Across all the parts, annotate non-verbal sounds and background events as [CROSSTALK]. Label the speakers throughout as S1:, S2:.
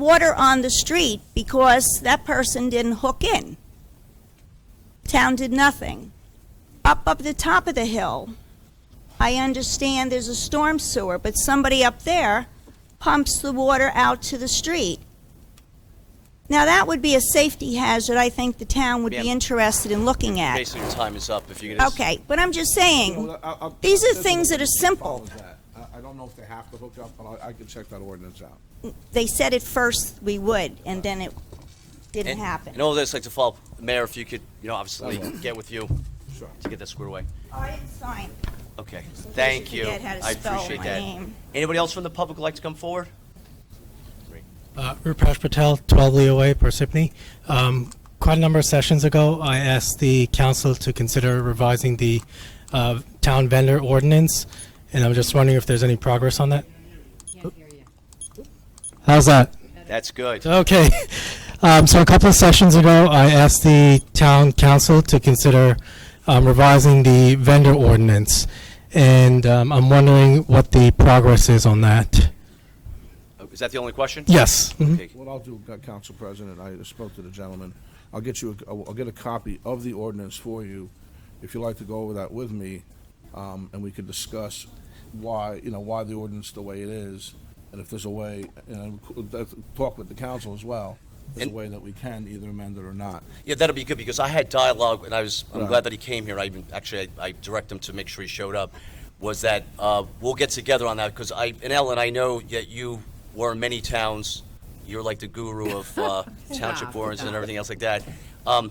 S1: water on the street because that person didn't hook in. Town did nothing. Up up the top of the hill, I understand there's a storm sewer, but somebody up there pumps the water out to the street. Now, that would be a safety hazard I think the town would be
S2: Ma'am.
S1: interested in looking at.
S2: Basically, your time is up. If you could. just-
S1: Okay, but I'm just saying,
S3: Well, I- I-
S1: these are
S3: there's a-
S1: things that are simple.
S3: What was that? I, I don't know if they have to hook up, but I, I can check that ordinance out.
S2: uh,
S1: They said at first we would, and then it didn't
S2: And-
S1: happen.
S2: And all this, like to follow, up, Mayor, if you could, you know, obviously get with you
S3: Sure.
S2: to get that squared away.
S1: I didn't sign.
S2: Okay,
S1: in case
S2: thank
S1: you
S2: you.
S1: forget how to
S2: I
S1: spell
S2: appreciate
S1: my
S2: that.
S1: name.
S2: Anybody else from the public would like to come forward?
S4: Uh, Rupesh Patel, 12 Leo Way, Parsippany. Um, quite a number of sessions ago, I asked the council to consider revising the uh, town vendor ordinance, and I'm just wondering if there's any progress on that.
S5: Can't hear you.
S4: How's that?
S2: That's good.
S4: Okay. [LAUGHS] Um, so a couple of sessions ago, I asked the town council to consider um, revising the vendor ordinance, and um, I'm wondering what the progress is on that.
S2: Uh, Is that the only question?
S4: Yes. Mhm.
S2: Okay.
S3: What I'll do, uh, Council President, I spoke to the gentleman. I'll get you, a- I'll get a copy of the ordinance for you, if you'd like to go over that with me, um, and we could discuss why, you know, why the ordinance the way it is, and if there's a way, and uh, talk with the council as well, if there's a
S2: And-
S3: way that we can either amend it or not.
S2: Yeah, that'll be good because I had dialogue and I was, I'm
S3: Right.
S2: glad that he came here. I even, actually, I I directed him to make sure he showed up. Was that, uh, we'll get together on that because I, and Ellen, I know that you were in many towns. You're like the guru of
S5: [LAUGHS]
S2: uh, township
S5: Stop,
S2: boards and
S5: stop.
S2: everything else like that. Um,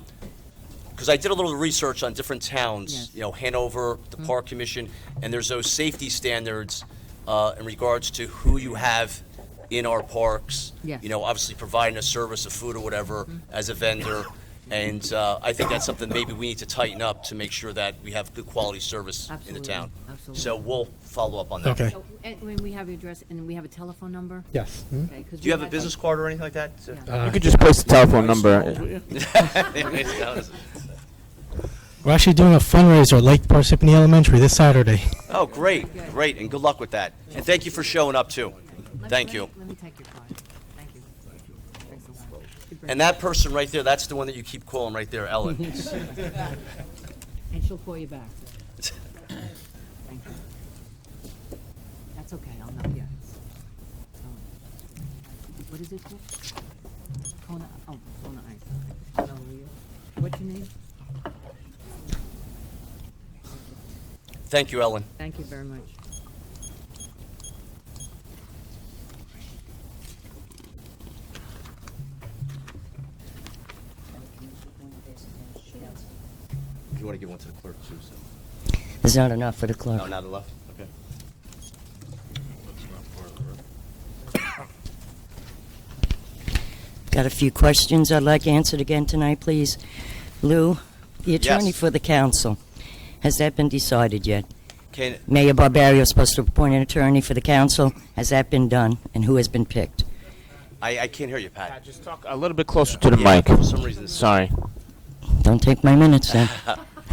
S2: because I did a little research on different towns,
S5: Yes. Mm-hmm.
S2: you know, Hanover, the Park Commission, and there's those safety standards uh, in regards to who you have in our parks.
S5: Yes.
S2: You know, obviously providing a service of food or whatever as a vendor. And uh, I think that's something maybe we need to tighten up to make sure that we have good quality service in the
S5: Absolutely,
S2: town.
S5: absolutely.
S2: So we'll follow up on that.
S4: Okay.
S5: So, Oh, and when we have your address, and we have a telephone number?
S4: Yes.
S5: Okay, 'cause
S2: Do you
S5: we
S2: have a
S5: had,
S2: business
S5: like-
S2: card or anything like that? [LAUGHS]
S6: You could just post the telephone
S3: Nice,
S6: number.
S3: will you?
S4: We're actually doing a fundraiser at Lake Parsippany Elementary this Saturday.
S2: Oh, great, great, and good luck with that. And thank you for showing up too.
S5: Let-
S2: Thank
S5: let
S2: you.
S5: me- Let me take your card. Thank you. Thanks a lot.
S2: And that person right there, that's the one that you keep calling right there, Ellen.
S5: [LAUGHS] And she'll call you back. Thank you. That's okay, I'll know, yeah. it's- it's all- What is it called? Kona, oh, Kona Ice. Kona Leo. What's your name?
S2: Thank you, Ellen.
S5: Thank you very much.
S2: You want to give one to the clerk too, so.
S7: There's not enough for the clerk.
S2: No, not the left, okay.
S7: Got a few questions I'd like answered again tonight, please. Lou, the attorney
S2: Yes.
S7: for the council, has that been decided yet?
S2: Can,
S7: Mayor Barbario is supposed to appoint an attorney for the council. Has that been done, and who has been picked?
S2: I, I can't hear you, Pat.
S6: Just talk a little bit closer to the
S2: Yeah,
S6: mic.
S2: For some reason. it's-
S6: Sorry.
S7: Don't take my minutes then.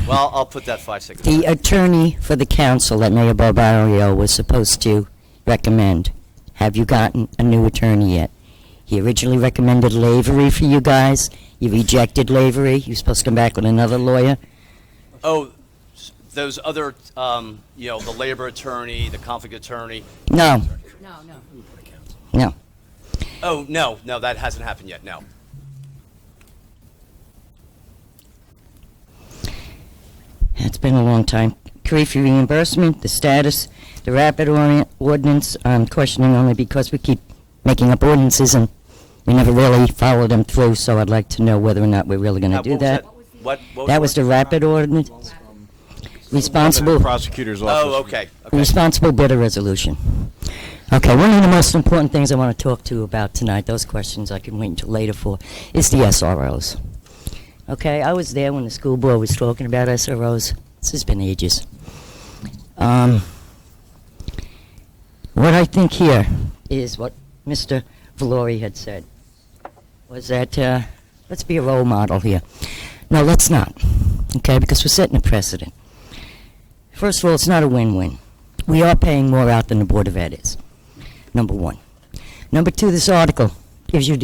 S2: Well, I'll put that five seconds.
S7: the attorney for the council that Mayor Barbario was supposed to recommend. Have you gotten a new attorney yet? He originally recommended Lavery for you guys. You rejected Lavery. You're supposed to come back with another lawyer.
S2: Oh, s- those other, um, you know, the labor attorney, the conflict attorney.
S7: No,
S5: No, no.
S7: no.
S2: Oh, no, no, that hasn't happened yet, no.
S7: It's been a long time. Karifi reimbursement, the status, the rapid ori- ordinance, I'm questioning only because we keep making up ordinances and we never really follow them through, so I'd like to know whether or not we're really
S2: Uh,
S7: gonna
S2: what
S7: do
S2: was
S7: that.
S2: What, what?
S7: That was the rapid ordinance, responsible,
S6: Prosecutor's office.
S2: Oh, okay, okay.
S7: responsible bidder resolution. Okay, one of the most important things I wanna talk to you about tonight, those questions I can wait until later for, is the SROs. Okay, I was there when the school board was talking about SROs. This has been ages. Um, what I think here is what Mr. Valori had said was that uh, let's be a role model here. No, let's not. Okay, because we're setting a precedent. First of all, it's not a win-win. We are paying more out than the Board of Ed is. Number one. Number two, this article gives you